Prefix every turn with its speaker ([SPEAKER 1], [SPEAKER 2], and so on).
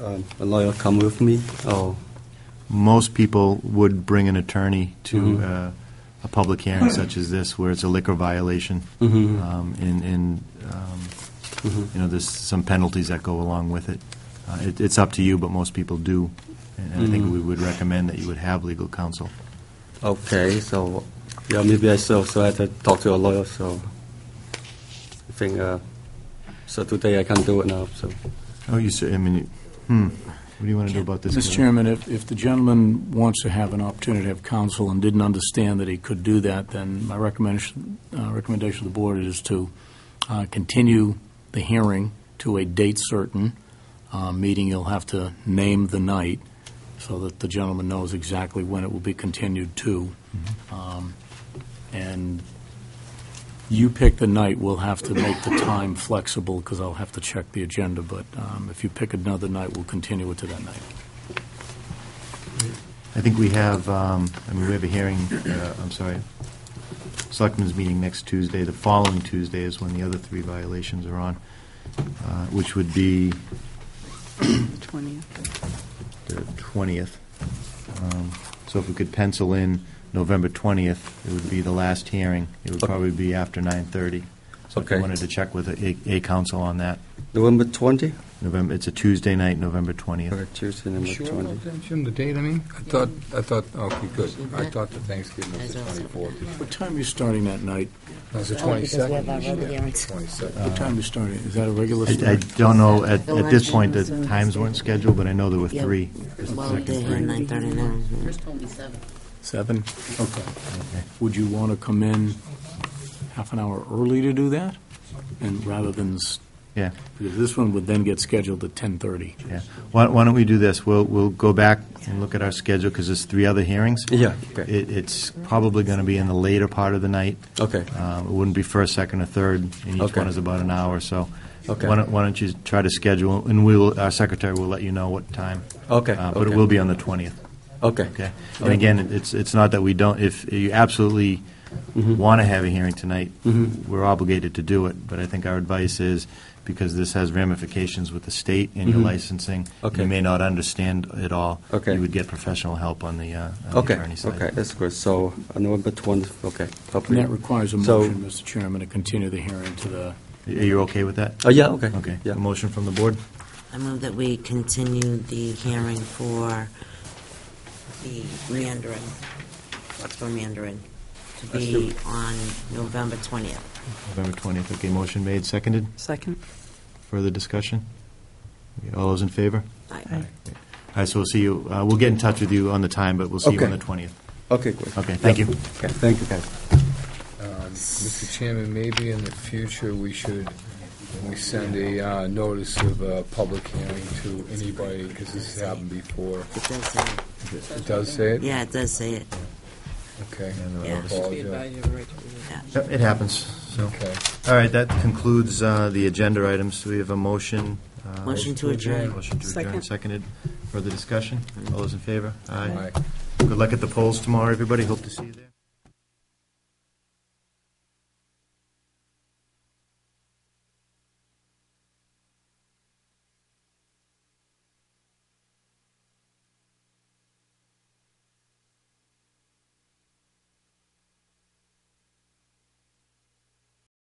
[SPEAKER 1] um, a lawyer come with me,
[SPEAKER 2] Oh.
[SPEAKER 1] or,
[SPEAKER 2] Most people would bring an attorney to uh, a public hearing such as this, where it's a liquor violation. Um, And, and, um,
[SPEAKER 1] Mm-hmm.
[SPEAKER 2] you know, there's some penalties that go along with it. Uh, it- It's up to you, but most people do. And I think we would recommend that you would have legal counsel.
[SPEAKER 1] okay, so, yeah, maybe I so, so I had to talk to a lawyer, so I think, uh, so today I can't do it now, so.
[SPEAKER 2] Oh, you said, I mean, you- hmm, what do you want to do about this?
[SPEAKER 3] Mr. Chairman, if, if the gentleman wants to have an opportunity to have counsel and didn't understand that he could do that, then my recommendation, uh, recommendation to the board is to uh, continue the hearing to a date certain, uh, meeting you'll have to name the night, so that the gentleman knows exactly when it will be continued to.
[SPEAKER 2] Mm-hmm.
[SPEAKER 3] Um, And you pick the night, we'll have to make the time flexible, because I'll have to check the agenda, but um, if you pick another night, we'll continue it to that night.
[SPEAKER 2] I think we have, um, I mean, we have a hearing, uh, I'm sorry, Selectmen's meeting next Tuesday. The following Tuesday is when the other three violations are on, uh, which would be
[SPEAKER 4] 20th.
[SPEAKER 2] the 20th. Um, So if we could pencil in November 20th, it would be the last hearing. It would probably be after 9:30. So if you
[SPEAKER 1] Okay.
[SPEAKER 2] wanted to check with a a council on that,
[SPEAKER 1] November 20?
[SPEAKER 2] November, it's a Tuesday night, November 20th.
[SPEAKER 1] Okay, Tuesday, November
[SPEAKER 5] Sure,
[SPEAKER 1] 20.
[SPEAKER 5] about that, Jim, the date, I mean?
[SPEAKER 6] I thought, I thought, okay, good. I thought the Thanksgiving was
[SPEAKER 4] As
[SPEAKER 6] the
[SPEAKER 4] well.
[SPEAKER 6] 24th.
[SPEAKER 3] What time are you starting that night?
[SPEAKER 6] That's the
[SPEAKER 4] Oh, because we have
[SPEAKER 6] 22nd.
[SPEAKER 4] our
[SPEAKER 6] usually.
[SPEAKER 4] road hearings.
[SPEAKER 6] 22nd.
[SPEAKER 3] What time are you starting? Is that a regular
[SPEAKER 2] I I
[SPEAKER 3] start?
[SPEAKER 2] don't know, at at this
[SPEAKER 4] Election
[SPEAKER 2] point, the
[SPEAKER 4] was on
[SPEAKER 2] times
[SPEAKER 4] Tuesday.
[SPEAKER 2] weren't scheduled, but I know there were
[SPEAKER 4] Yeah.
[SPEAKER 2] three. This is the
[SPEAKER 4] Well, they
[SPEAKER 2] second
[SPEAKER 4] had
[SPEAKER 2] three.
[SPEAKER 4] 9:39. yeah.
[SPEAKER 3] Seven? Okay. Would you want to come in half an hour early to do that? And rather than, s-
[SPEAKER 2] Yeah.
[SPEAKER 3] because this one would then get scheduled at 10:30.
[SPEAKER 2] Yeah. Why why don't we do this? We'll, we'll go back and look at our schedule, because there's three other hearings.
[SPEAKER 1] Yeah, okay,
[SPEAKER 2] It, it's probably going to be in the later part of the night.
[SPEAKER 1] okay,
[SPEAKER 2] Um, It wouldn't be first, second, or third, and each
[SPEAKER 1] Okay.
[SPEAKER 2] one is about an hour, so.
[SPEAKER 1] Okay.
[SPEAKER 2] Why don't, why don't you try to schedule, and we will, our secretary will let you know what time.
[SPEAKER 1] okay.
[SPEAKER 2] Uh, But it will be on the 20th,
[SPEAKER 1] Okay,
[SPEAKER 2] okay? And again, it's, it's not that we don't, if you absolutely
[SPEAKER 1] Mm-hmm.
[SPEAKER 2] want to have a hearing tonight, we're obligated to do it, but I think our advice is, because this has ramifications with the state and your licensing,
[SPEAKER 1] Mm-hmm. Okay.
[SPEAKER 2] you may not understand it all.
[SPEAKER 1] Okay.
[SPEAKER 2] You would get professional help on the uh, on the
[SPEAKER 1] okay,
[SPEAKER 2] attorney side.
[SPEAKER 1] okay, that's good, so uh, November 20, okay.
[SPEAKER 3] And
[SPEAKER 1] hopefully-
[SPEAKER 3] that requires a
[SPEAKER 1] So-
[SPEAKER 3] motion, Mr. Chairman, to continue the hearing to the,
[SPEAKER 2] Are you okay with that?
[SPEAKER 1] Oh, yeah, okay.
[SPEAKER 2] Okay.
[SPEAKER 1] Yeah.
[SPEAKER 2] A motion from the board?
[SPEAKER 4] I move that we continue the hearing for the Mandarin, what's for Mandarin, to be on November 20th.
[SPEAKER 2] November 20th. Okay, motion made, seconded.
[SPEAKER 5] Second.
[SPEAKER 2] Further discussion? Okay, All those in favor?
[SPEAKER 4] I-
[SPEAKER 2] All right, so we'll see you, uh, we'll get in touch with you on the time, but we'll see you on
[SPEAKER 1] Okay.
[SPEAKER 2] the 20th.
[SPEAKER 1] Okay, great.
[SPEAKER 2] Okay, thank you.
[SPEAKER 1] Okay, thank you, guys.
[SPEAKER 6] Um, Mr. Chairman, maybe in the future, we should, when we send a uh, notice of a public hearing to anybody, because this has happened before.
[SPEAKER 4] It does say, it.
[SPEAKER 6] It does say it?
[SPEAKER 4] yeah, it does say it,
[SPEAKER 6] Okay.
[SPEAKER 4] Yeah.
[SPEAKER 6] I apologize.
[SPEAKER 4] yeah.
[SPEAKER 2] Yep, It happens, so.
[SPEAKER 6] Okay.
[SPEAKER 2] All right, that concludes uh, the agenda items. We have a motion. uh,
[SPEAKER 4] Motion to adjourn.
[SPEAKER 2] Motion to adjourn,
[SPEAKER 5] Second.
[SPEAKER 2] seconded. Further discussion? All those in favor?
[SPEAKER 6] All right.
[SPEAKER 2] Good luck at the polls tomorrow, everybody. Hope to see you there.